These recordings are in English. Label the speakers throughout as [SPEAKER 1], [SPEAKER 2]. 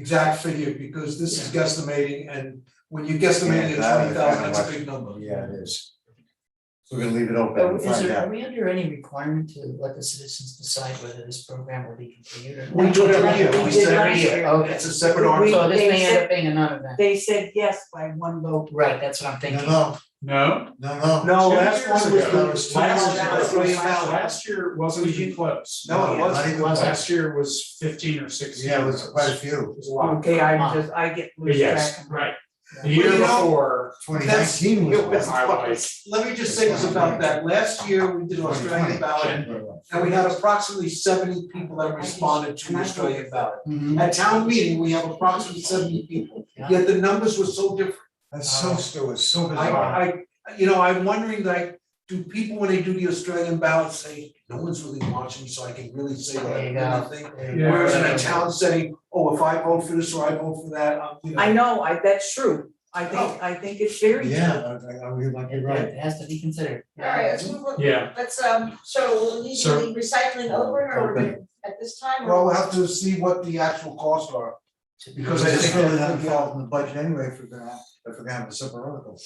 [SPEAKER 1] exact figure, because this is guesstimating, and when you guesstimate
[SPEAKER 2] Yeah,
[SPEAKER 1] at
[SPEAKER 2] that
[SPEAKER 1] twenty thousand,
[SPEAKER 2] is kinda
[SPEAKER 1] that's a
[SPEAKER 2] much-
[SPEAKER 1] big number.
[SPEAKER 2] Yeah, it is. So we're gonna leave it open
[SPEAKER 3] So
[SPEAKER 2] and
[SPEAKER 3] is
[SPEAKER 2] find
[SPEAKER 3] there, are
[SPEAKER 2] out.
[SPEAKER 3] we under any requirement to let the citizens decide whether this program will be continued or not?
[SPEAKER 1] We do it every year,
[SPEAKER 4] We
[SPEAKER 1] we
[SPEAKER 4] did
[SPEAKER 1] said every
[SPEAKER 4] last
[SPEAKER 1] year,
[SPEAKER 4] year.
[SPEAKER 3] Okay,
[SPEAKER 1] it's
[SPEAKER 3] so
[SPEAKER 1] a separate article.
[SPEAKER 4] We-
[SPEAKER 3] this
[SPEAKER 4] they
[SPEAKER 3] may end
[SPEAKER 4] said-
[SPEAKER 3] up being a non-event,
[SPEAKER 4] They said yes by one vote.
[SPEAKER 3] right, that's what I'm thinking.
[SPEAKER 2] No,
[SPEAKER 5] No.
[SPEAKER 2] no, no, no.
[SPEAKER 1] No,
[SPEAKER 5] Two
[SPEAKER 1] last
[SPEAKER 5] years
[SPEAKER 1] one
[SPEAKER 2] ago.
[SPEAKER 1] was
[SPEAKER 2] That was
[SPEAKER 1] the, last year,
[SPEAKER 5] Last
[SPEAKER 1] was
[SPEAKER 5] year,
[SPEAKER 1] three
[SPEAKER 5] last,
[SPEAKER 1] thousand.
[SPEAKER 5] last year wasn't even close.
[SPEAKER 1] No, it
[SPEAKER 2] not
[SPEAKER 1] wasn't.
[SPEAKER 2] even
[SPEAKER 5] Last,
[SPEAKER 2] close.
[SPEAKER 5] last year was fifteen or sixteen.
[SPEAKER 2] Yeah, it was quite a
[SPEAKER 5] It
[SPEAKER 2] few,
[SPEAKER 5] was a lot.
[SPEAKER 4] Okay, I just, I get
[SPEAKER 5] But
[SPEAKER 4] loose track.
[SPEAKER 5] Oh, yes,
[SPEAKER 4] of-
[SPEAKER 5] right. The
[SPEAKER 1] Well,
[SPEAKER 5] year
[SPEAKER 1] you know-
[SPEAKER 5] before,
[SPEAKER 2] twenty nineteen was
[SPEAKER 1] It was-
[SPEAKER 2] one.
[SPEAKER 5] I was-
[SPEAKER 1] Let me just say this about that, last year, we did Australian
[SPEAKER 2] 2020.
[SPEAKER 1] ballot, and we had approximately seventy people that responded to Australian ballot.
[SPEAKER 3] Mhm.
[SPEAKER 1] At town meeting, we have approximately seventy people, yet the numbers were so different.
[SPEAKER 2] That's so still, it's so bizarre.
[SPEAKER 1] I, I, you know, I'm wondering, like, do people, when they do the Australian ballot, say, no one's really watching, so I can really say what I
[SPEAKER 3] Yeah.
[SPEAKER 1] really think?
[SPEAKER 5] Yeah.
[SPEAKER 1] Whereas in a town setting, oh, if I vote for this or I vote for that, I'm, you know.
[SPEAKER 4] I know, I, that's true. I think, I think it's very true.
[SPEAKER 2] Yeah, I, I, I- you might be
[SPEAKER 3] It
[SPEAKER 2] right.
[SPEAKER 3] it has to be considered.
[SPEAKER 6] All right, let's move on.
[SPEAKER 5] Yeah.
[SPEAKER 6] Let's, um, so we'll need to
[SPEAKER 5] Sir.
[SPEAKER 6] leave recycling over or we're gonna- at this time? or-
[SPEAKER 1] Well, we'll have to see what the actual costs are, because I
[SPEAKER 2] It's
[SPEAKER 1] think
[SPEAKER 2] really
[SPEAKER 1] that
[SPEAKER 2] not
[SPEAKER 1] could be
[SPEAKER 2] involved
[SPEAKER 1] all,
[SPEAKER 2] in the budget anyway, if we're gonna, have- if we're gonna have a separate article.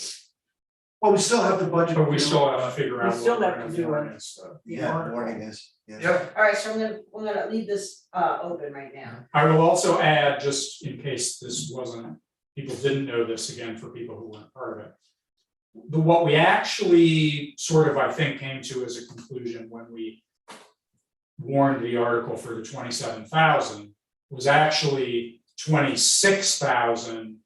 [SPEAKER 1] well, we still have the budget.
[SPEAKER 5] but we still have to figure
[SPEAKER 4] We
[SPEAKER 5] out
[SPEAKER 4] still
[SPEAKER 5] what we're
[SPEAKER 4] have
[SPEAKER 5] gonna
[SPEAKER 4] to
[SPEAKER 5] do
[SPEAKER 4] do
[SPEAKER 5] on
[SPEAKER 4] it.
[SPEAKER 5] this, so.
[SPEAKER 2] Yeah, warning is, yeah.
[SPEAKER 1] Yeah,
[SPEAKER 6] All right, so I'm gonna, we're gonna leave this, uh, open right now.
[SPEAKER 5] I will also add, just in case this wasn't, people didn't know this again for people who weren't part of it. The, what we actually sort of, I think, came to as a conclusion when we warned the article for the twenty-seven thousand was actually twenty-six thousand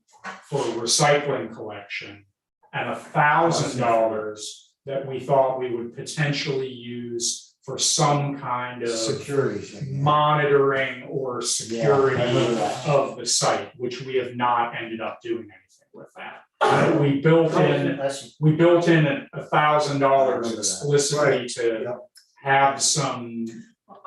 [SPEAKER 5] for recycling collection and a thousand dollars that we thought we would potentially use for some kind of
[SPEAKER 2] Security thing.
[SPEAKER 5] monitoring or security
[SPEAKER 2] Yeah, I remember that.
[SPEAKER 5] of the site, which we have not ended up doing anything with that. But We built in,
[SPEAKER 3] Unless you-
[SPEAKER 5] we built in a- a thousand
[SPEAKER 2] I remember
[SPEAKER 5] dollars
[SPEAKER 2] that.
[SPEAKER 5] explicitly
[SPEAKER 2] yeah.
[SPEAKER 5] to have some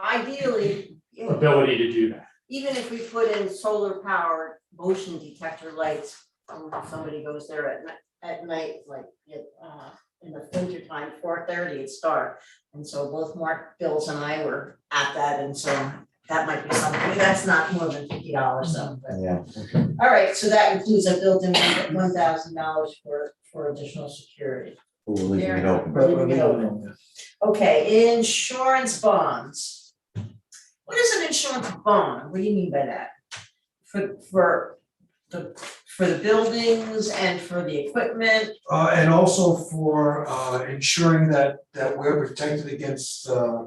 [SPEAKER 6] Ideally, you know,
[SPEAKER 5] ability to do that.
[SPEAKER 6] even if we put in solar powered motion detector lights, um, if somebody goes there at night, at night, like, it, uh, in the winter time, four thirty, it's dark. And so both Mark, Bills and I were at that, and so that might be something, that's not more than fifty dollars though, but.
[SPEAKER 2] Yeah.
[SPEAKER 6] All right, so that includes a built-in one thousand dollars for, for additional security.
[SPEAKER 2] We're leaving it open.
[SPEAKER 3] But we're leaving
[SPEAKER 6] Okay, insurance bonds. What is an insurance bond? What do you mean by that? For, for the, for the buildings and for the equipment?
[SPEAKER 1] uh, and also for, uh, ensuring that, that we're protected against, uh,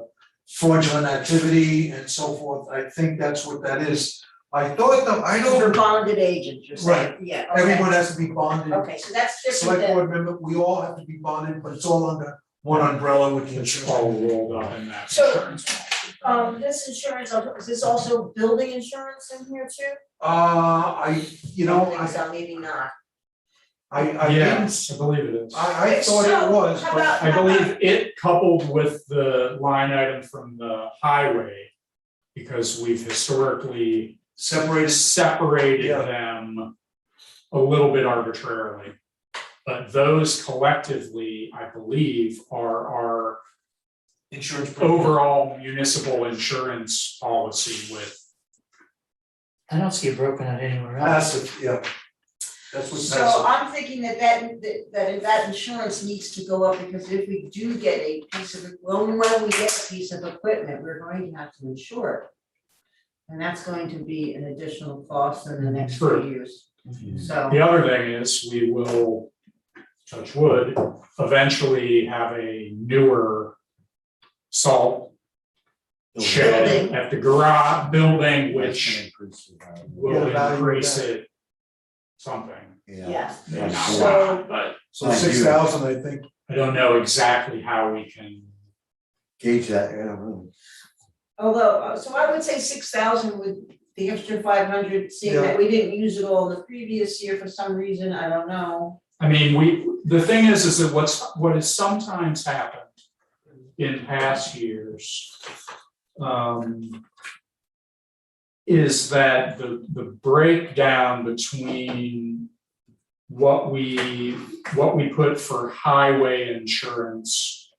[SPEAKER 1] fraudulent activity and so forth, I think that's what that is. I thought, the- I
[SPEAKER 6] For
[SPEAKER 1] don't,
[SPEAKER 6] bonded agents, you're saying? Yeah, okay.
[SPEAKER 1] everyone has to be bonded,
[SPEAKER 6] Okay, so that's different
[SPEAKER 1] select
[SPEAKER 6] than,
[SPEAKER 1] board member, we all have to be bonded, but it's all under one umbrella with the
[SPEAKER 5] It's
[SPEAKER 1] insurance.
[SPEAKER 5] all rolled up in that
[SPEAKER 6] So-
[SPEAKER 5] insurance. policy.
[SPEAKER 6] um, this insurance, is this also building insurance in here too?
[SPEAKER 5] Oh.
[SPEAKER 1] Uh, I, you know,
[SPEAKER 6] I think
[SPEAKER 1] I,
[SPEAKER 6] so, maybe not.
[SPEAKER 1] I, I didn't,
[SPEAKER 5] Yes, I believe it is.
[SPEAKER 1] I, I thought it was,
[SPEAKER 6] So, how
[SPEAKER 1] but
[SPEAKER 6] about-
[SPEAKER 5] I believe it coupled with the line item from the highway, because we've historically
[SPEAKER 1] separated.
[SPEAKER 5] separated
[SPEAKER 1] Yeah.
[SPEAKER 5] them a little bit arbitrarily. But those collectively, I believe, are our
[SPEAKER 1] Insurance. program.
[SPEAKER 5] overall municipal insurance policy with.
[SPEAKER 3] I don't see it broken out anywhere else.
[SPEAKER 1] Passive, yeah. That's what
[SPEAKER 6] So
[SPEAKER 1] passive.
[SPEAKER 6] I'm thinking that that, that- that that insurance needs to go up, because if we do get a piece of, well, when we get a piece of equipment, we're going to have to insure it. And that's going to be an additional cost in the next few
[SPEAKER 5] True.
[SPEAKER 6] years, so,
[SPEAKER 5] The other thing is, we will, touch wood, eventually have a newer salt shed
[SPEAKER 6] Building.
[SPEAKER 5] at the garage building, which will
[SPEAKER 1] Yeah, value
[SPEAKER 5] increase
[SPEAKER 1] back.
[SPEAKER 5] it something.
[SPEAKER 2] Yeah.
[SPEAKER 6] yeah.
[SPEAKER 5] Not a
[SPEAKER 2] So-
[SPEAKER 5] lot, But
[SPEAKER 1] So six thousand, I think,
[SPEAKER 5] I don't know exactly how we can.
[SPEAKER 2] Gauge that, yeah, really.
[SPEAKER 6] Although, uh, so I would say six thousand with the extra five hundred, seeing that we didn't use it all the previous year for some reason, I don't know.
[SPEAKER 5] I mean, we, the thing is, is that what's, what has sometimes happened in past years um, is that the, the breakdown between what we, what we put for highway insurance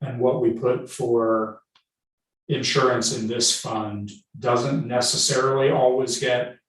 [SPEAKER 5] and what we put for insurance in this fund doesn't necessarily always get